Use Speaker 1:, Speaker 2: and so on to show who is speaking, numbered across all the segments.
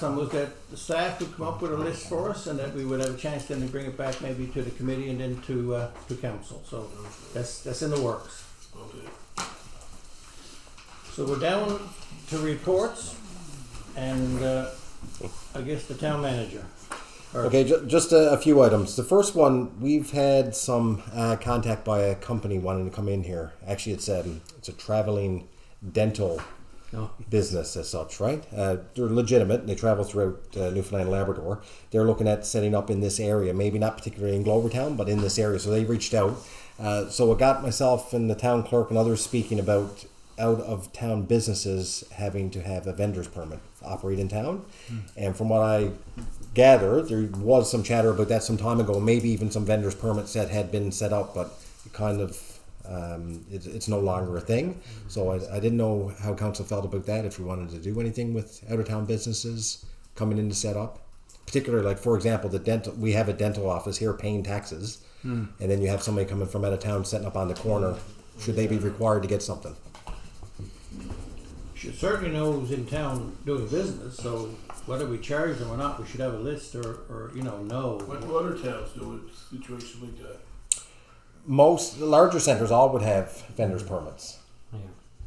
Speaker 1: Some was that the staff would come up with a list for us and that we would have a chance then to bring it back maybe to the committee and then to, uh, to council. So that's, that's in the works.
Speaker 2: Okay.
Speaker 1: So we're down to reports and, uh, I guess the town manager. Or-
Speaker 3: Okay, ju- just a, a few items. The first one, we've had some uh, contact by a company wanting to come in here. Actually, it's um, it's a traveling dental
Speaker 1: No.
Speaker 3: business as such, right? Uh, they're legitimate. and They travel throughout uh, Newfoundland and Labrador. They're looking at setting up in this area, maybe not particularly in Glovertown, but in this area. So they reached out. Uh, so I got myself and the town clerk and others speaking about out of town businesses having to have a vendor's permit to operate in town. And from what I gather, there was some chatter about that some time ago, maybe even some vendor's permits that had been set up, but it kind of um, it, it's no longer a thing. So I, I didn't know how council felt about that. If we wanted to do anything with out of town businesses coming in to set up, particularly like for example, the dental. We have a dental office here paying taxes, and then you have somebody coming from out of town setting up on the corner. Should they be required to get something?
Speaker 1: Should certainly know who's in town doing business, so whether we charge them or not, we should have a list or, or, you know,
Speaker 2: What
Speaker 1: know.
Speaker 2: do other towns do with situations like that?
Speaker 3: Most the larger centers all would have vendors permits.
Speaker 4: Yeah.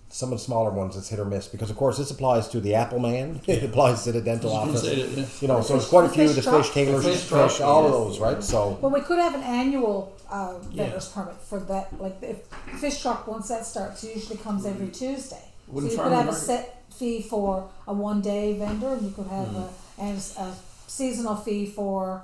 Speaker 3: Some of the smaller ones it's hit or miss because of course this applies to the Apple Man. it applies to the dental office. You know, so it's quite a
Speaker 5: The
Speaker 3: few
Speaker 5: fish
Speaker 3: the
Speaker 5: truck.
Speaker 3: fish tailors,
Speaker 1: The
Speaker 3: fish,
Speaker 1: fish truck,
Speaker 3: all of
Speaker 1: yes.
Speaker 3: those, right? So
Speaker 5: Well, we could have an annual uh, vendor's
Speaker 1: Yes.
Speaker 5: permit for that, like if fish truck, once that starts, it usually comes every Tuesday. So
Speaker 6: Wouldn't
Speaker 5: you
Speaker 6: farm
Speaker 5: could have a
Speaker 6: market-
Speaker 5: set fee for a one-day vendor, and you could have a, and s- a seasonal fee for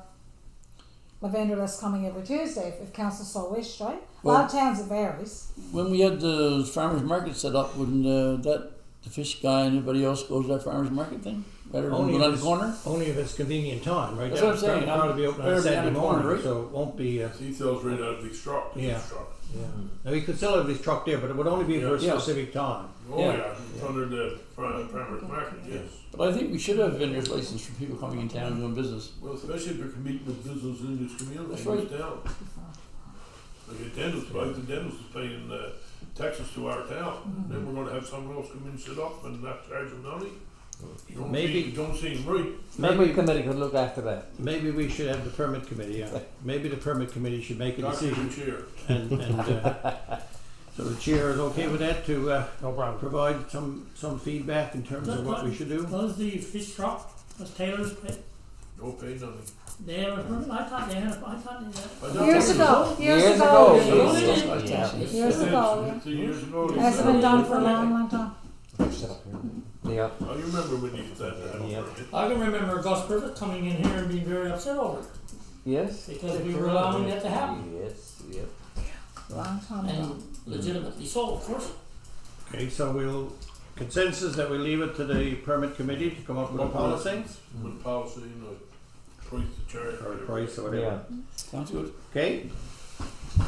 Speaker 5: a vendor that's coming every Tuesday, if- if council so wished, right? A lot of towns, it varies.
Speaker 6: When we had the farmers market set up, wouldn't uh, that the fish guy and anybody else go to that farmers market thing
Speaker 4: Oh,
Speaker 6: rather than
Speaker 1: Only
Speaker 6: go down the
Speaker 1: if-
Speaker 6: corner?
Speaker 1: Only if it's convenient time, right?
Speaker 6: That's what I'm saying.
Speaker 1: That'll Probably be open on
Speaker 6: Better be on
Speaker 1: Saturday
Speaker 6: the corner,
Speaker 1: morning,
Speaker 6: right?
Speaker 1: so it won't be, uh,
Speaker 2: He sells right out of the truck. the
Speaker 1: Yeah.
Speaker 2: truck.
Speaker 1: now we could still have this truck there, but it would only be for a
Speaker 6: Yeah.
Speaker 1: specific time.
Speaker 2: Oh
Speaker 6: Yeah.
Speaker 2: yeah, it's under the pri- farmers market. Yes.
Speaker 6: But I think we should have vendor's license for people coming in town and doing business.
Speaker 2: Well, especially if you're competing with business in this community,
Speaker 6: That's
Speaker 2: it's
Speaker 6: right.
Speaker 2: down. Like the dentist, like the dentist is paying uh, taxes to our town,
Speaker 5: Mm-hmm.
Speaker 2: then we're gonna have someone else come in and sit up and not charge them money. Don't
Speaker 1: Maybe-
Speaker 2: seem, don't seem right.
Speaker 4: Maybe a committee could look after that.
Speaker 1: Maybe we should have the permit committee, yeah. Maybe the permit committee should make a
Speaker 2: Doctor
Speaker 1: decision
Speaker 2: and chair.
Speaker 1: and, and, uh, so the chair is okay with that to, uh,
Speaker 4: No problem.
Speaker 1: provide some, some feedback in terms of what we should do?
Speaker 7: Was the fish shop, was Taylor's, pet-
Speaker 2: No pay nothing.
Speaker 7: they have a permit? I thought they had, a- I thought they had.
Speaker 2: I don't
Speaker 5: Years
Speaker 2: think
Speaker 5: ago,
Speaker 4: Years
Speaker 5: years
Speaker 4: ago.
Speaker 5: ago.
Speaker 2: Years
Speaker 5: it
Speaker 2: ago.
Speaker 5: is.
Speaker 2: it's-
Speaker 5: Years
Speaker 2: it's-
Speaker 5: ago,
Speaker 2: it's Years ago.
Speaker 5: It
Speaker 2: it's
Speaker 5: Hasn't
Speaker 2: done.
Speaker 5: been done for a long, long time.
Speaker 3: set up here.
Speaker 4: Yeah.
Speaker 2: Oh, you remember when you said that?
Speaker 4: Yeah.
Speaker 7: I can remember Gus Griffith coming in here and being very upset over it,
Speaker 4: Yes.
Speaker 7: because we were allowing that to happen,
Speaker 4: Yes. Yep.
Speaker 5: Long time ago.
Speaker 7: and legitimately so, of course.
Speaker 1: Okay, so we'll, consensus that we leave it to the permit committee to come up with a policy?
Speaker 2: With policy and the price to charge.
Speaker 1: Or a price or
Speaker 4: Yeah.
Speaker 1: whatever.
Speaker 6: Sounds good.
Speaker 1: Okay?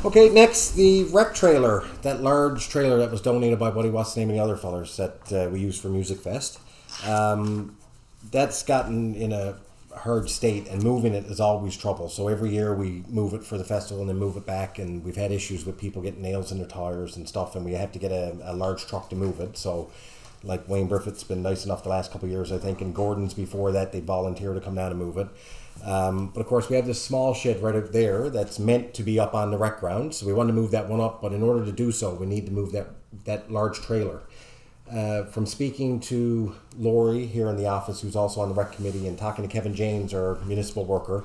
Speaker 3: Okay, next the rec trailer, that large trailer that was donated by Buddy What's the name of the other fellers that uh, we use for Music Fest. Um, that's gotten in a hard state, and moving it is always trouble. So every year we move it for the festival and then move it back, and we've had issues with people getting nails in their tires and stuff, and we have to get a, a large truck to move it. So like Wayne Burfitt's been nice enough the last couple of years, I think, and Gordon's before that, they volunteer to come down and move it. Um, but of course, we have this small shed right up there that's meant to be up on the rec ground, so we want to move that one up. But in order to do so, we need to move that that large trailer. Uh, from speaking to Lori here in the office, who's also on the rec committee, and talking to Kevin James, our municipal worker,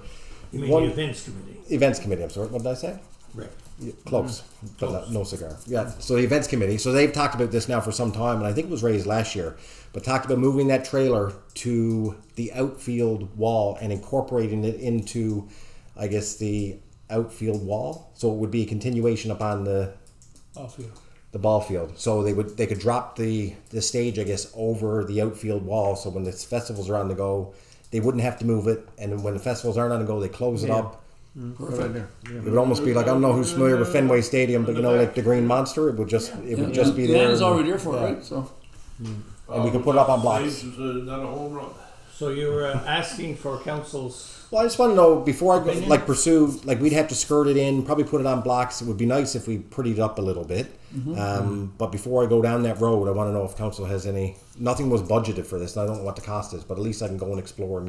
Speaker 3: one-
Speaker 1: events committee?
Speaker 3: events committee. I'm sorry, what did I say?
Speaker 1: Right.
Speaker 3: Yeah, close, but not- no cigar. Yeah. So the events committee. So they've talked about this now for some time, and I think it was raised last year, but talked about moving that trailer to the outfield wall and incorporating it into, I guess, the outfield wall. So it would be a continuation upon the the ball field. So they would they could drop the the stage, I guess, over the outfield wall. So when the festivals are on the go, they wouldn't have to move it. And when the festivals aren't on the go, they close it up.
Speaker 6: Perfect.
Speaker 3: It would almost be like I don't know who's familiar with Fenway Stadium, but you know, like the Green Monster, it would just it would just be
Speaker 6: The
Speaker 3: there.
Speaker 6: land is already there for
Speaker 3: Yeah.
Speaker 6: it, right? So
Speaker 3: And we could put it up on blocks.
Speaker 2: Saves is, uh, not a home run.
Speaker 1: So you were uh, asking for council's,
Speaker 3: Well, I just want to know before I go,
Speaker 1: Opinion?
Speaker 3: like pursue, like we'd have to skirt it in, probably put it on blocks. It would be nice if we prettied it up a little bit. Um, but before I go down that road, I want to know if council has any. Nothing was budgeted for this, and I don't know what the cost is, but at least I can go and explore and